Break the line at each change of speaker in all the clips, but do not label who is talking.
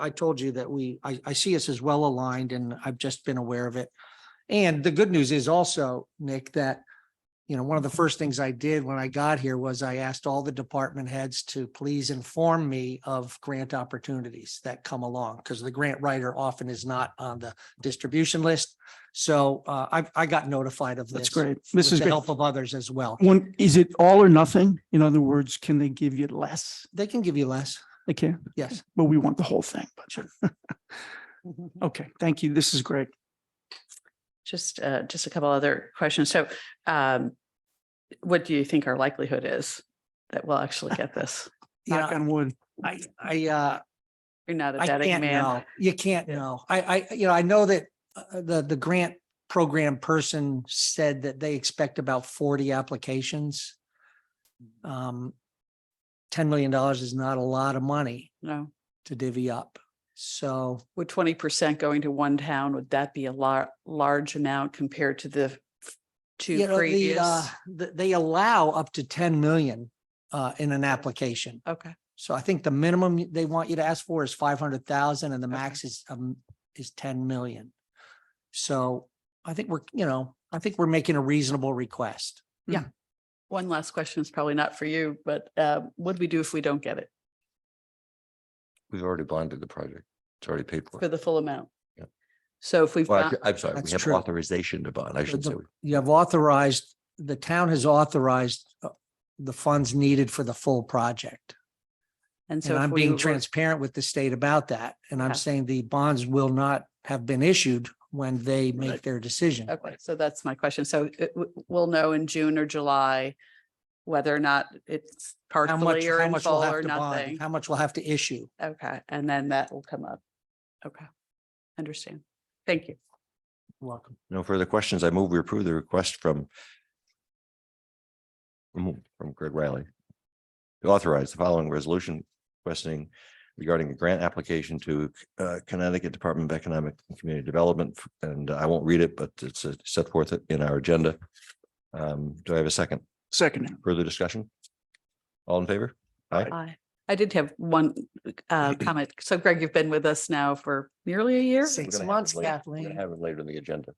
I told you that we, I, I see us as well aligned and I've just been aware of it. And the good news is also, Nick, that, you know, one of the first things I did when I got here was I asked all the department heads to please inform me of grant opportunities that come along, because the grant writer often is not on the distribution list. So uh, I, I got notified of this.
That's great.
With
This is
the
great.
help of others as well.
One, is it all or nothing? In other words, can they give you less?
They can give you less,
They can,
yes.
but we want the whole thing. But sure. Okay, thank you. This is great.
Just, uh, just a couple other questions. So, um, what do you think our likelihood is that we'll actually get this?
Knock
Yeah,
on wood.
I, I, uh,
You're not a
I
betting
can't
man.
know. You can't know. I, I, you know, I know that uh, the, the grant program person said that they expect about forty applications. Um, ten million dollars is not a lot of money
No,
to divvy up. So
would twenty percent going to one town, would that be a lar- large amount compared to the f-
you know,
two
the, uh,
previous?
th- they allow up to ten million uh, in an application.
Okay,
So I think the minimum they want you to ask for is five hundred thousand and the
Okay.
max is, um, is ten million. So I think we're, you know, I think we're making a reasonable request.
one last question is probably not for you, but, uh, what do we do if we don't get it
We've already bonded the project. It's already paid for.
for the full amount?
Yeah.
So if we've,
Well,
got-
actu- I'm sorry, we
That's
have
true.
authorization to bond. I should say.
the- You have authorized, the town has authorized uh, the funds needed for the full project.
and so.
And
if
I'm
we
being
were-
transparent with the state about that. And
Yeah.
I'm saying the bonds will not have been issued when they make
Right.
their decision.
Okay, so that's my question. So it- w- we'll know in June or July whether or not it's
How much,
partially or
how
in
much we'll
full or
have to bond,
nothing.
how much we'll have to issue.
Okay, and then that will come up. Okay, understand. Thank you.
Welcome.
No further questions. I move we approve the request from from from Greg Riley. to Authorize the following resolution requesting regarding a grant application to uh, Connecticut Department of Economic and Community Development. And I won't read it, but it's uh, set forth in our agenda. Um, Do I have a second?
Second,
Further discussion? All in favor?
Aye. I did have one uh, comment. So Greg, you've been with us now for nearly a year,
Six
We're gonna have it
months,
later. We're gonna
Kathleen.
Have it later in the agenda.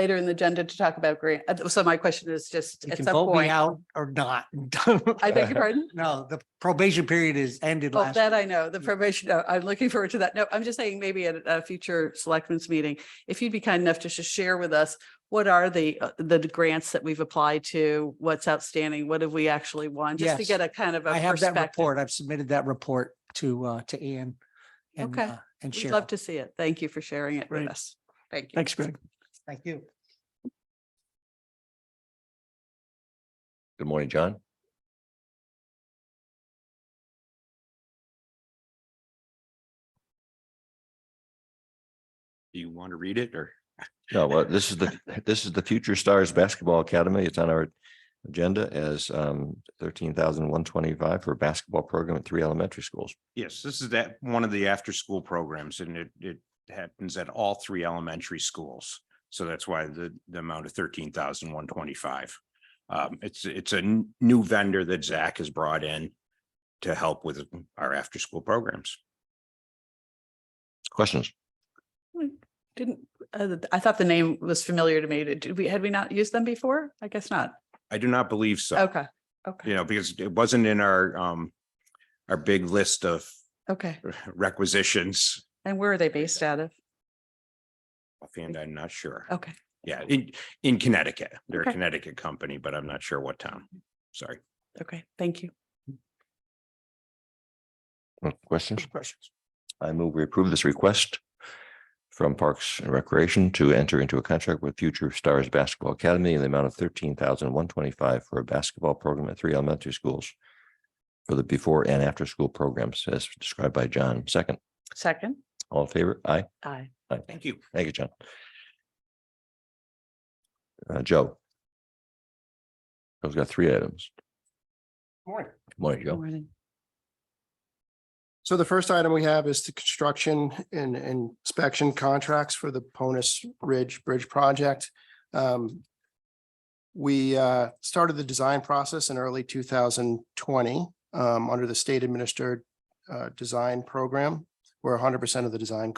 later in the agenda to talk about grant. uh, So my question is just
You
at
can
some
vote me
point.
out or not.
I beg your pardon?
No, the probation period is ended
Oh,
last.
that I know, the
Yeah.
probation, uh, I'm looking forward to that. No, I'm just saying maybe at a future selectmen's meeting, if you'd be kind enough to just share with us, what are the, uh, the grants that we've applied to? What's outstanding? What have we actually won? Just to
Yes.
get a kind of a
I have that
perspective.
report. I've submitted that report to, uh, to Ian. and,
Okay.
uh, And
We'd love
Cheryl.
to see it. Thank you for sharing it with
Great.
us. Thank you.
thanks, Greg.
Thank you.
Good morning, John.
Do you want to read it or?
No, well, this is the, this is the Future Stars Basketball Academy. It's on our agenda as um thirteen thousand one twenty-five for a basketball program at three elementary schools.
Yes, this is that, one of the after-school programs and it, it happens at all three elementary schools. So that's why the, the amount of thirteen thousand one twenty-five. Um, it's, it's a n- new vendor that Zach has brought in to help with our after-school programs.
Questions?
Didn't, uh, I thought the name was familiar to me. Did did we, had we not used them before? I guess not.
I do not believe so,
Okay, okay,
you know, because it wasn't in our, um, our big list of
okay.
requisitions.
And where are they based out of?
Offhand, I'm not sure.
Okay.
Yeah, in, in Connecticut. They're a
Okay.
Connecticut company, but I'm not sure what town. Sorry.
Okay, thank you.
Uh, Questions?
Questions?
I move we approve this request from Parks and Recreation to enter into a contract with Future Stars Basketball Academy in the amount of thirteen thousand one twenty-five for a basketball program at three elementary schools for the before and after-school programs as described by John. Second,
Second,
all in favor? Aye.
aye.
Thank you.
Thank you, John. Uh, Joe. Joe's got three items.
Morning.
Good Morning, Joe.
Morning.
So the first item we have is the construction and and inspection contracts for the Ponus Ridge Bridge project. Um, We uh, started the design process in early two um, thousand twenty under the state administered uh, design program where hundred percent of the design